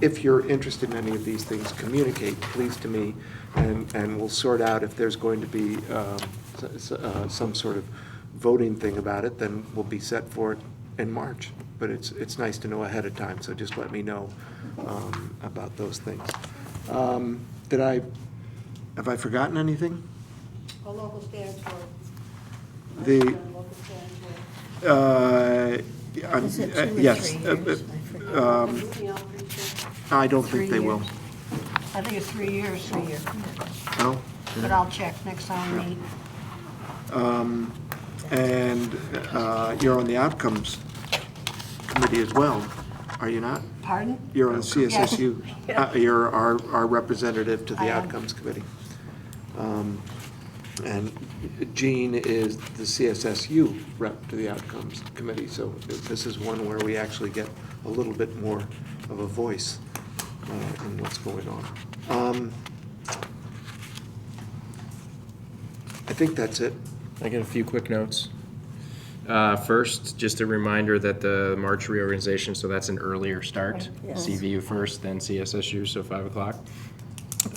if you're interested in any of these things, communicate, please, to me, and, and we'll sort out if there's going to be um, s- s- uh, some sort of voting thing about it, then we'll be set for it in March. But it's, it's nice to know ahead of time, so just let me know um, about those things. Um, Did I, have I forgotten anything? A local stands for. The- Local stands for. Uh, I'm- Is it two or Yes. three uh, years? uh, I forget. um, Moving on, pretty soon. I don't Three think they will. years. I think it's three years, three years, No? but I'll check next time we meet. And uh, you're on the outcomes committee as well, are you not? Pardon? You're on CSSU, Yeah. uh, you're our, our representative to I the am. outcomes committee. Um, And Jean is the CSSU rep to the outcomes committee, so this is one where we actually get a little bit more of a voice uh, in what's going on. Um, I think that's it. I get a few quick notes. Uh, First, just a reminder that the March reorganization, so that's an earlier start. CVU first, then CSSU, so 5 o'clock.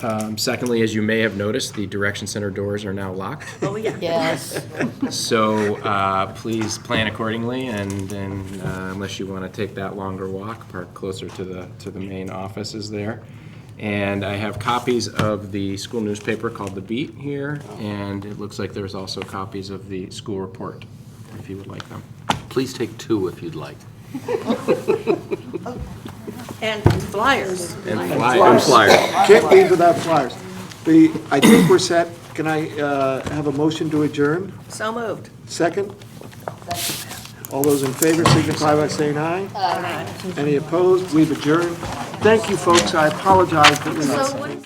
Um, Secondly, as you may have noticed, the Direction Center doors are now locked. Yes. So uh, please plan accordingly, and and, uh, unless you want to take that longer walk, park closer to the, to the main offices there. And I have copies of the school newspaper called The Beat here, and it looks like there's also copies of the school report, if you would like them. Please take two if you'd like. And flyers. And I'm flyers. flyer. Can't leave without flyers. The, I think we're set. Can I uh, have a motion to adjourn? So moved. Second? All those in favor signify by saying aye. Aye. Any opposed? We've adjourned. Thank you, folks. I apologize that we So what is?